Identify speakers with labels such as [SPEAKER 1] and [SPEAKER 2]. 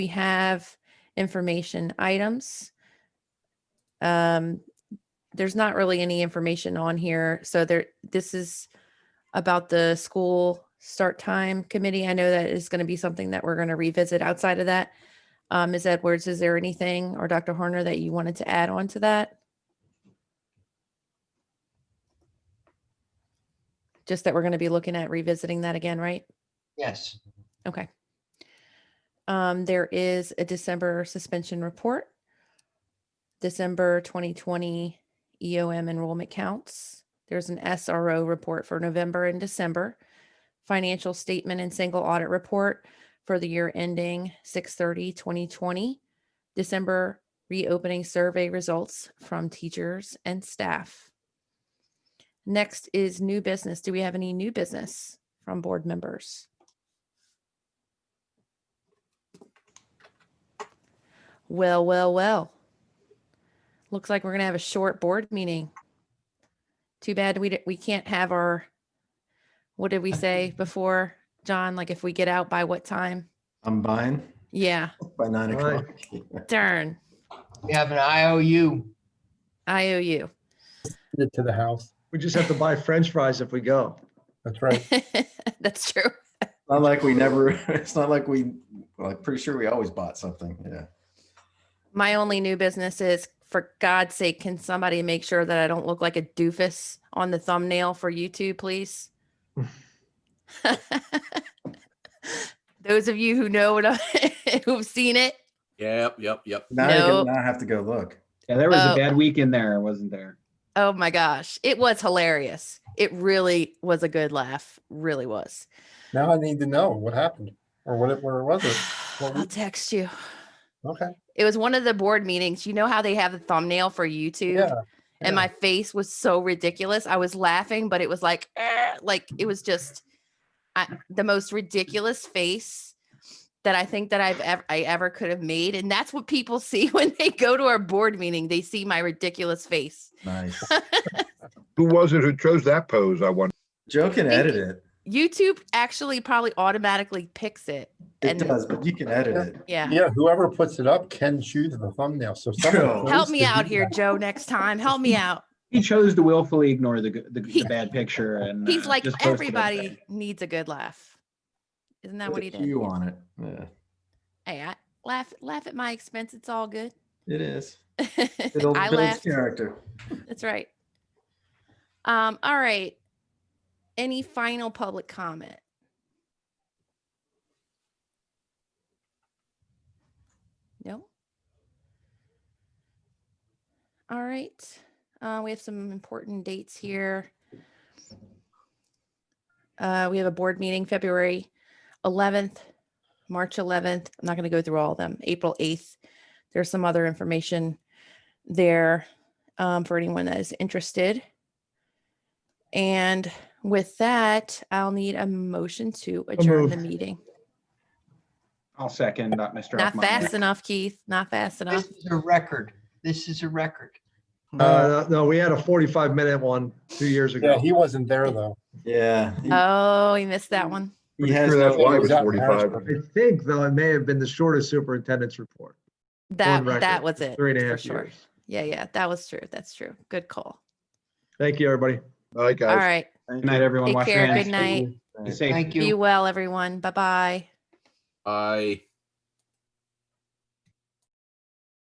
[SPEAKER 1] we have information items. Um, there's not really any information on here, so there, this is about the school start time committee. I know that is going to be something that we're going to revisit outside of that. Um, Ms. Edwards, is there anything or Dr. Horner that you wanted to add on to that? Just that we're going to be looking at revisiting that again, right?
[SPEAKER 2] Yes,
[SPEAKER 1] Okay. Um, there is a December suspension report. December twenty twenty EOM enrollment counts. There's an SRO report for November and December. Financial statement and single audit report for the year ending 2020. December reopening survey results from teachers and staff. Next is new business. Do we have any new business from board members? Well, well, well. Looks like we're gonna have a short board meeting. Too bad we, di- we can't have our, what did we say before, John? Like if we get out by what time?
[SPEAKER 3] I'm buying
[SPEAKER 1] Yeah,
[SPEAKER 3] by nine
[SPEAKER 2] Right.
[SPEAKER 3] o'clock.
[SPEAKER 1] darn,
[SPEAKER 2] we have an IOU.
[SPEAKER 1] I owe you.
[SPEAKER 4] it to the house.
[SPEAKER 5] We just have to buy French fries if we go.
[SPEAKER 4] That's right.
[SPEAKER 1] That's true.
[SPEAKER 3] Not like we never, it's not like we, well, I'm pretty sure we always bought something. Yeah.
[SPEAKER 1] My only new business is, for God's sake, can somebody make sure that I don't look like a doofus on the thumbnail for YouTube, please? Those of you who know what, I- who've seen it,
[SPEAKER 6] Yep, yep, yep.
[SPEAKER 3] Now you're
[SPEAKER 1] Nope.
[SPEAKER 3] gonna not have to go look.
[SPEAKER 4] Yeah, there was
[SPEAKER 1] Oh.
[SPEAKER 4] a bad week in there, wasn't there?
[SPEAKER 1] Oh my gosh, it was hilarious. It really was a good laugh. Really was.
[SPEAKER 7] Now I need to know what happened or what it, where was it? What
[SPEAKER 1] I'll
[SPEAKER 7] we-
[SPEAKER 1] text you.
[SPEAKER 7] Okay.
[SPEAKER 1] It was one of the board meetings. You know how they have the thumbnail for YouTube?
[SPEAKER 7] Yeah.
[SPEAKER 1] And my face was so ridiculous. I was laughing, but it was like, "Eh," like it was just I, the most ridiculous face that I think that I've ever I ever could have made. And that's what people see when they go to our board meeting. They see my ridiculous face.
[SPEAKER 3] Nice.
[SPEAKER 8] Who was it who chose that pose? I wonder.
[SPEAKER 3] Joe can
[SPEAKER 1] Thank
[SPEAKER 3] edit
[SPEAKER 1] you.
[SPEAKER 3] it.
[SPEAKER 1] YouTube actually probably automatically picks it.
[SPEAKER 3] It
[SPEAKER 1] And-
[SPEAKER 3] does, but you can edit it.
[SPEAKER 1] Yeah.
[SPEAKER 7] Yeah, whoever puts it up can choose the thumbnail. So
[SPEAKER 3] Joe.
[SPEAKER 7] someone.
[SPEAKER 1] Help
[SPEAKER 7] chose
[SPEAKER 1] me
[SPEAKER 7] to
[SPEAKER 1] out
[SPEAKER 7] do
[SPEAKER 1] here,
[SPEAKER 7] that.
[SPEAKER 1] Joe, next time. Help me out.
[SPEAKER 4] He chose to willfully ignore the g- the, the
[SPEAKER 1] He-
[SPEAKER 4] bad picture, and
[SPEAKER 1] He's
[SPEAKER 4] uh,
[SPEAKER 1] like,
[SPEAKER 4] just posted it.
[SPEAKER 1] everybody needs a good laugh. Isn't that
[SPEAKER 3] Put
[SPEAKER 1] what
[SPEAKER 3] a
[SPEAKER 1] he did?
[SPEAKER 3] Q on it. Yeah,
[SPEAKER 1] Hey, I laugh, laugh at my expense. It's all good.
[SPEAKER 3] it is. It'll
[SPEAKER 1] I
[SPEAKER 3] build
[SPEAKER 1] laughed.
[SPEAKER 3] character.
[SPEAKER 1] That's right. Um, all right. Any final public comment? No? All right. Uh, we have some important dates here. Uh, we have a board meeting February 11th, March 11th. I'm not going to go through all of them. April 8th. There's some other information there um, for anyone that is interested. And with that, I'll need a motion to adjourn the meeting.
[SPEAKER 4] I'll second that, Mr.
[SPEAKER 1] Not
[SPEAKER 4] Hoffmeyer.
[SPEAKER 1] fast enough, Keith. Not fast enough.
[SPEAKER 2] This is a record. This is a record.
[SPEAKER 5] Uh, no, we had a 45 minute one two years
[SPEAKER 7] Yeah,
[SPEAKER 5] ago.
[SPEAKER 7] he wasn't there though.
[SPEAKER 3] Yeah. he-
[SPEAKER 1] Oh, you missed
[SPEAKER 5] Mm.
[SPEAKER 1] that one.
[SPEAKER 3] he
[SPEAKER 8] Pretty
[SPEAKER 3] has
[SPEAKER 8] sure
[SPEAKER 3] no-
[SPEAKER 8] that's why it
[SPEAKER 7] He
[SPEAKER 8] was
[SPEAKER 7] out in
[SPEAKER 8] 45.
[SPEAKER 5] I
[SPEAKER 7] Harrisburg.
[SPEAKER 5] think though, it may have been the shortest superintendent's report,
[SPEAKER 1] That
[SPEAKER 5] record.
[SPEAKER 1] that was it.
[SPEAKER 5] three and a
[SPEAKER 1] for
[SPEAKER 5] half
[SPEAKER 1] sure.
[SPEAKER 5] years.
[SPEAKER 1] Yeah, yeah, that was true. That's true. Good call.
[SPEAKER 5] Thank you, everybody.
[SPEAKER 8] All right,
[SPEAKER 1] All
[SPEAKER 8] guys.
[SPEAKER 1] right.
[SPEAKER 4] Good night, everyone.
[SPEAKER 1] Take
[SPEAKER 4] Wash your
[SPEAKER 1] care.
[SPEAKER 4] hands.
[SPEAKER 1] Good night.
[SPEAKER 4] Be safe.
[SPEAKER 2] Thank
[SPEAKER 1] Be
[SPEAKER 2] you.
[SPEAKER 1] well, everyone. Bye bye.
[SPEAKER 6] I.